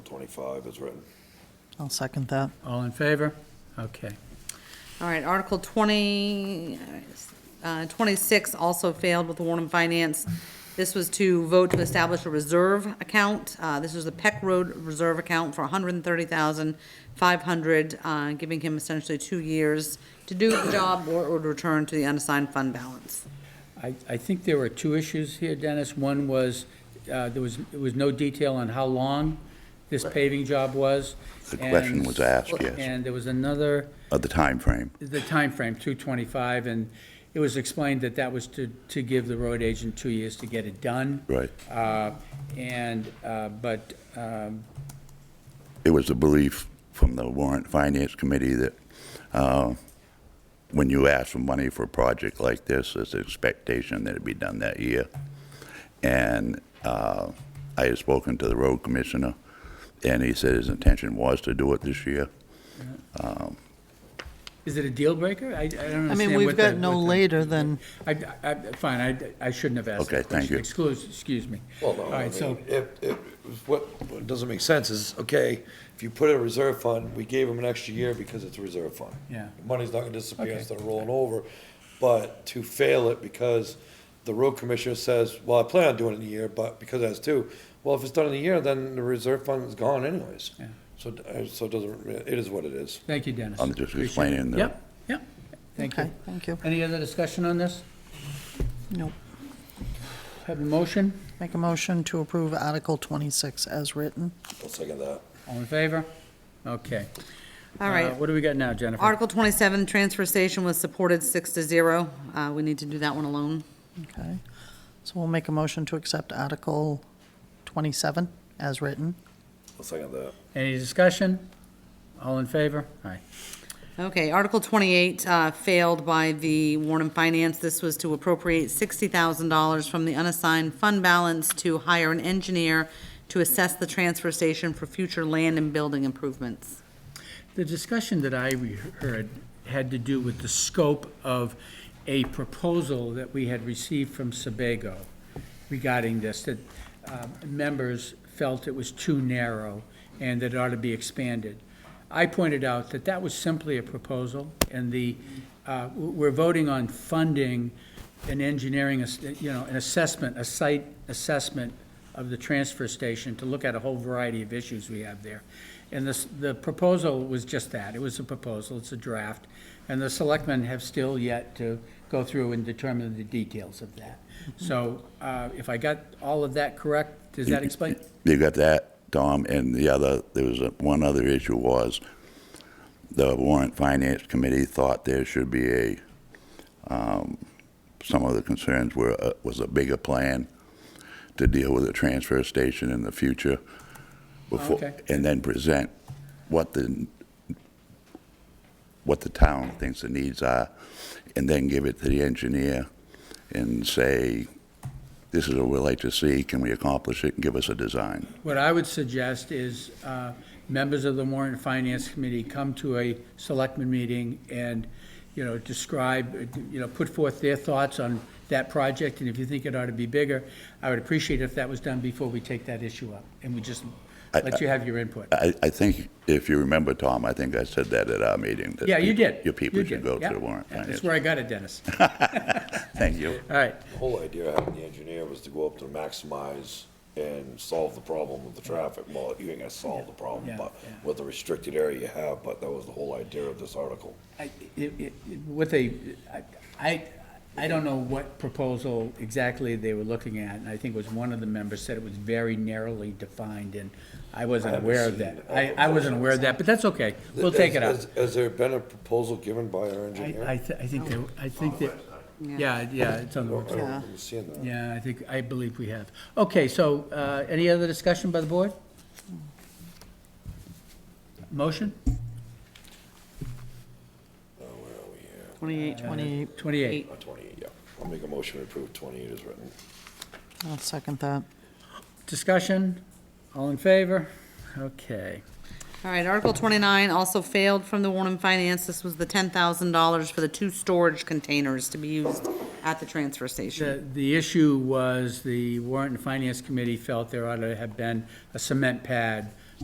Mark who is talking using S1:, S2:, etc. S1: 25 is written.
S2: I'll second that.
S3: All in favor? Okay.
S4: All right, Article 20, uh, 26 also failed with Warren and Finance. This was to vote to establish a reserve account. Uh, This was the Peck Road Reserve Account for $130,500, uh, giving him essentially two years to do the job or or to return to the unassigned fund balance.
S3: I, I think there were two issues here, Dennis. One was, uh, there was, there was no detail on how long this paving job was.
S5: The question
S3: and-
S5: was asked, yes,
S3: And there was another,
S5: of the time frame.
S3: the timeframe, 225, and it was explained that that was to, to give the road agent two years to get it done.
S5: Right.
S3: Uh, And, uh, but, um,
S5: It was the belief from the warrant finance committee that uh, when you ask for money for a project like this, it's an expectation that it'd be done that year. And uh, I had spoken to the road commissioner, and he said his intention was to do it this year.
S3: is it a deal breaker? I I don't understand
S2: I mean, we've
S3: what the-
S2: got no
S3: what the-
S2: later than,
S3: I, I, fine, I, I shouldn't have asked
S5: Okay,
S3: that
S5: thank
S3: question.
S5: you.
S3: Excuse, excuse me.
S1: Well, no,
S3: All
S1: I
S3: right, so,
S1: mean, if, if, what, what doesn't make sense is, okay, if you put it in a reserve fund, we gave them an extra year because it's a reserve fund.
S3: Yeah.
S1: The Money's not gonna disappear
S3: Okay.
S1: instead of rolling over, but to fail it because the road commissioner says, well, I plan on doing it in a year, but because that's two, well, if it's done in a year, then the reserve fund is gone anyways.
S3: Yeah.
S1: So, uh, so it doesn't, re- it is what it is.
S3: thank you, Dennis.
S5: I'm just
S3: Appreciate it.
S5: explaining the-
S3: Yep, yep, thank
S2: okay,
S3: you.
S2: thank you.
S3: Any other discussion on this?
S2: Nope.
S3: Have a motion?
S2: Make a motion to approve Article 26 as written.
S1: I'll second that.
S3: All in favor? Okay.
S4: All
S3: Uh,
S4: right,
S3: What do we got now, Jennifer?
S4: Article 27, Transfer Station was supported six to zero. Uh, We need to do that one alone.
S2: Okay. So we'll make a motion to accept Article 27 as written.
S1: I'll second that.
S3: Any discussion? All in favor? Aye.
S4: Okay, Article 28 uh, failed by the Warren and Finance. This was to appropriate $60,000 from the unassigned fund balance to hire an engineer to assess the transfer station for future land and building improvements.
S3: The discussion that I re- heard had to do with the scope of a proposal that we had received from Sebago regarding this, that um, members felt it was too narrow and that it ought to be expanded. I pointed out that that was simply a proposal, and the, uh, w- we're voting on funding an engineering, ass- you know, an assessment, a site assessment of the transfer station to look at a whole variety of issues we have there. And this, the proposal was just that, it was a proposal, it's a draft, and the selectmen have still yet to go through and determine the details of that. So, uh, if I got all of that correct, does that explain?
S5: You got that, Tom, and the other, there was a- one other issue was the warrant finance committee thought there should be a, um, some of the concerns were, uh, was a bigger plan to deal with the transfer station in the future. before-
S3: Okay.
S5: And then present what the, what the town thinks the needs are, and then give it to the engineer and say, this is what we'd like to see, can we accomplish it, and give us a design.
S3: What I would suggest is, uh, members of the Warren and Finance Committee come to a selectmen meeting and, you know, describe, you know, put forth their thoughts on that project, and if you think it ought to be bigger, I would appreciate if that was done before we take that issue up, and we just let you have your input.
S5: I, I think, if you remember, Tom, I think I said that at our meeting. that
S3: Yeah, you did.
S5: Your people
S3: You
S5: should
S3: did.
S5: go to
S3: Yeah.
S5: the warrant
S3: That's
S5: finance.
S3: where I got it, Dennis.
S5: Thank you.
S3: All right,
S1: The whole idea of having the engineer was to go up to maximize and solve the problem of the traffic. Well, you ain't gonna solve the problem,
S3: Yeah,
S1: but
S3: yeah.
S1: with the restricted area you have, but that was the whole idea of this article.
S3: I- it- it- What they, I- I, I don't know what proposal exactly they were looking at, and I think it was one of the members said it was very narrowly defined, and I wasn't
S1: haven't
S3: aware of
S1: seen
S3: that.
S1: a
S3: I, I wasn't aware of that, but that's okay, we'll take it up.
S1: Has- has- Has there been a proposal given by our
S3: I,
S1: engineer?
S3: I thi- I think, they- I think that, yeah, yeah, it's on the
S1: Oh, I don't
S3: website.
S1: remember seeing that.
S3: Yeah, I think, I believe we have. Okay, so, uh, any other discussion by the board? Motion?
S1: Uh, Where are we here?
S4: 28,
S2: 20,
S3: Twenty-eight.
S1: Uh, Twenty-eight, yeah. I'll make a motion to approve twenty-eight is written.
S2: I'll second that.
S3: Discussion? All in favor? Okay.
S4: All right, Article 29 also failed from the Warren and Finance. This was the $10,000 for the two storage containers to be used at the transfer station.
S3: The, the issue was the warrant and finance committee felt there ought to have been a cement pad